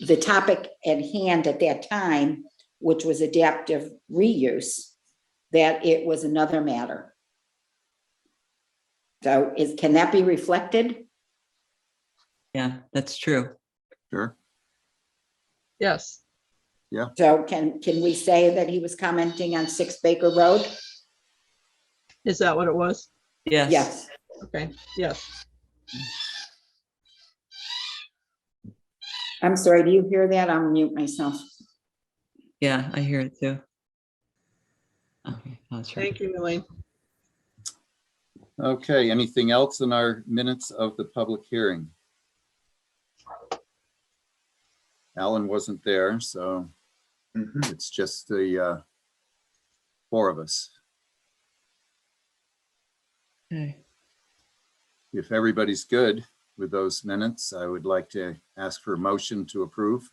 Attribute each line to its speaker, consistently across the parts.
Speaker 1: the topic at hand at that time, which was adaptive reuse, that it was another matter. So is, can that be reflected?
Speaker 2: Yeah, that's true.
Speaker 3: Sure.
Speaker 4: Yes,
Speaker 1: So can, can we say that he was commenting on Six Baker Road?
Speaker 4: is that what it was?
Speaker 2: Yes.
Speaker 1: Yes,
Speaker 4: Okay, yes.
Speaker 1: I'm sorry, do you hear that? I'll mute myself.
Speaker 2: Yeah, I hear it too. Okay, that's right.
Speaker 4: Thank you, Elaine.
Speaker 3: Okay, anything else in our minutes of the public hearing? Alan wasn't there, so it's just the uh, four of us.
Speaker 2: Okay.
Speaker 3: If everybody's good with those minutes, I would like to ask for a motion to approve.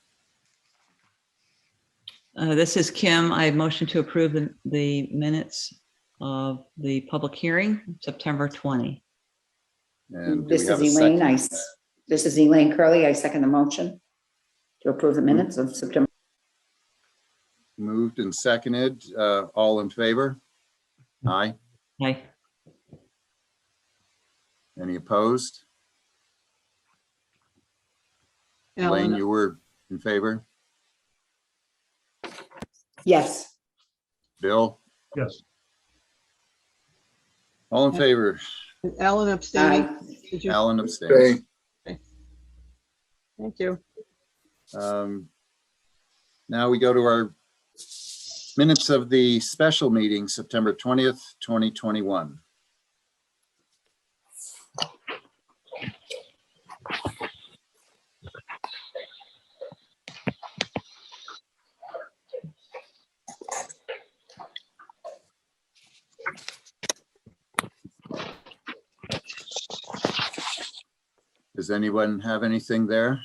Speaker 2: Uh, This is Kim. I motion to approve the- the minutes of the public hearing, September 20.
Speaker 3: And do we
Speaker 1: This
Speaker 3: have
Speaker 1: is
Speaker 3: a
Speaker 1: Elaine,
Speaker 3: second?
Speaker 1: I, s- this is Elaine Curley. I second the motion to approve the minutes of September.
Speaker 3: Moved and seconded, uh, all in favor? Aye.
Speaker 2: Hi.
Speaker 3: Any opposed? Elaine,
Speaker 4: Alan,
Speaker 3: you were in favor?
Speaker 1: Yes,
Speaker 3: Bill?
Speaker 5: Yes.
Speaker 3: All in favor?
Speaker 4: Alan abstaining.
Speaker 1: aye.
Speaker 4: Did you-
Speaker 3: Alan abstains.
Speaker 4: Thank you.
Speaker 3: Um, Now we go to our minutes of the special meeting, September 20th, 2021. Does anyone have anything there?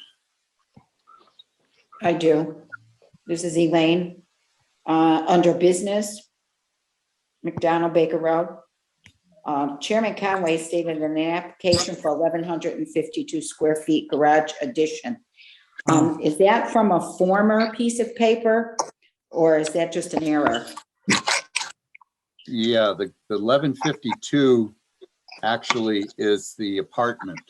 Speaker 1: I do. This is Elaine. Uh, under business, McDonald Baker Road. Um, Chairman Conway stated in an application for eleven hundred and fifty-two square feet garage addition. Um, is that from a former piece of paper or is that just an error?
Speaker 3: Yeah, the the eleven fifty-two actually is the apartment.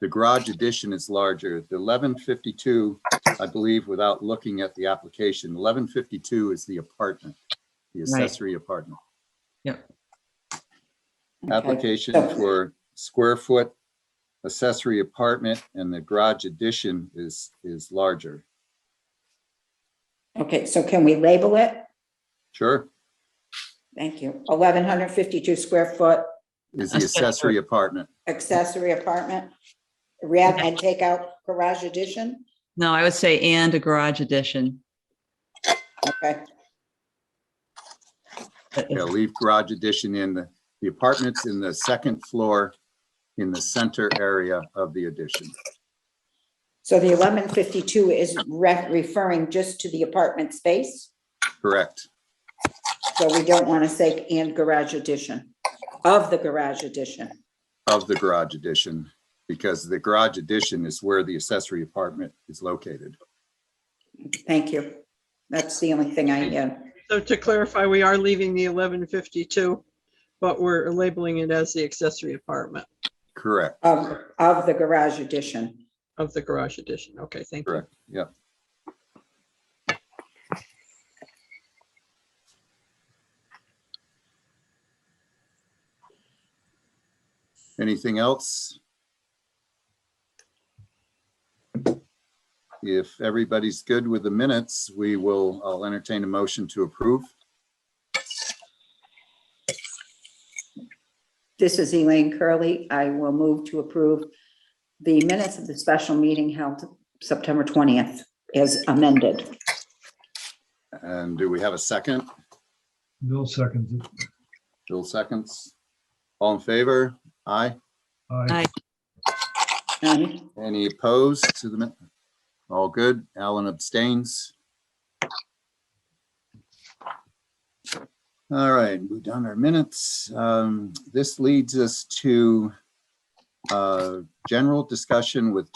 Speaker 3: The garage addition is larger. The eleven fifty-two, I believe, without looking at the application, eleven fifty-two is the apartment, the
Speaker 2: Right.
Speaker 3: accessory apartment.
Speaker 1: Okay.
Speaker 3: Application
Speaker 1: so-
Speaker 3: for square foot accessory apartment and the garage addition is, is larger.
Speaker 1: Okay, so can we label it?
Speaker 3: Sure,
Speaker 1: Thank you. Eleven hundred fifty-two square foot
Speaker 3: is the accessory
Speaker 2: Accessory.
Speaker 3: apartment.
Speaker 1: accessory apartment. Rather, and take out garage addition?
Speaker 2: No, I would say and a garage addition.
Speaker 1: Okay.
Speaker 2: That is-
Speaker 3: Yeah, leave garage addition in the, the apartments in the second floor in the center area of the addition.
Speaker 1: So the eleven fifty-two is re- referring just to the apartment space,
Speaker 3: Correct.
Speaker 1: so we don't want to say and garage addition, of the garage addition.
Speaker 3: Of the garage addition, because the garage addition is where the accessory apartment is located.
Speaker 1: Thank you. That's the only thing I had.
Speaker 4: So to clarify, we are leaving the eleven fifty-two, but we're labeling it as the accessory apartment
Speaker 3: Correct.
Speaker 1: Of, of the garage addition.
Speaker 4: of the garage addition. Okay, thank you.
Speaker 3: Correct. Yep. Anything else? If everybody's good with the minutes, we will, I'll entertain a motion to approve.
Speaker 1: This is Elaine Curley. I will move to approve the minutes of the special meeting held September twentieth as amended.
Speaker 3: And do we have a second?
Speaker 5: Bill seconds it.
Speaker 3: Bill seconds. All in favor? Aye.
Speaker 5: Aye.
Speaker 2: Aye.
Speaker 1: Aye.
Speaker 3: Any opposed to the minute? All good. Alan abstains. All right, we've done our minutes. Um, This leads us to uh, general discussion with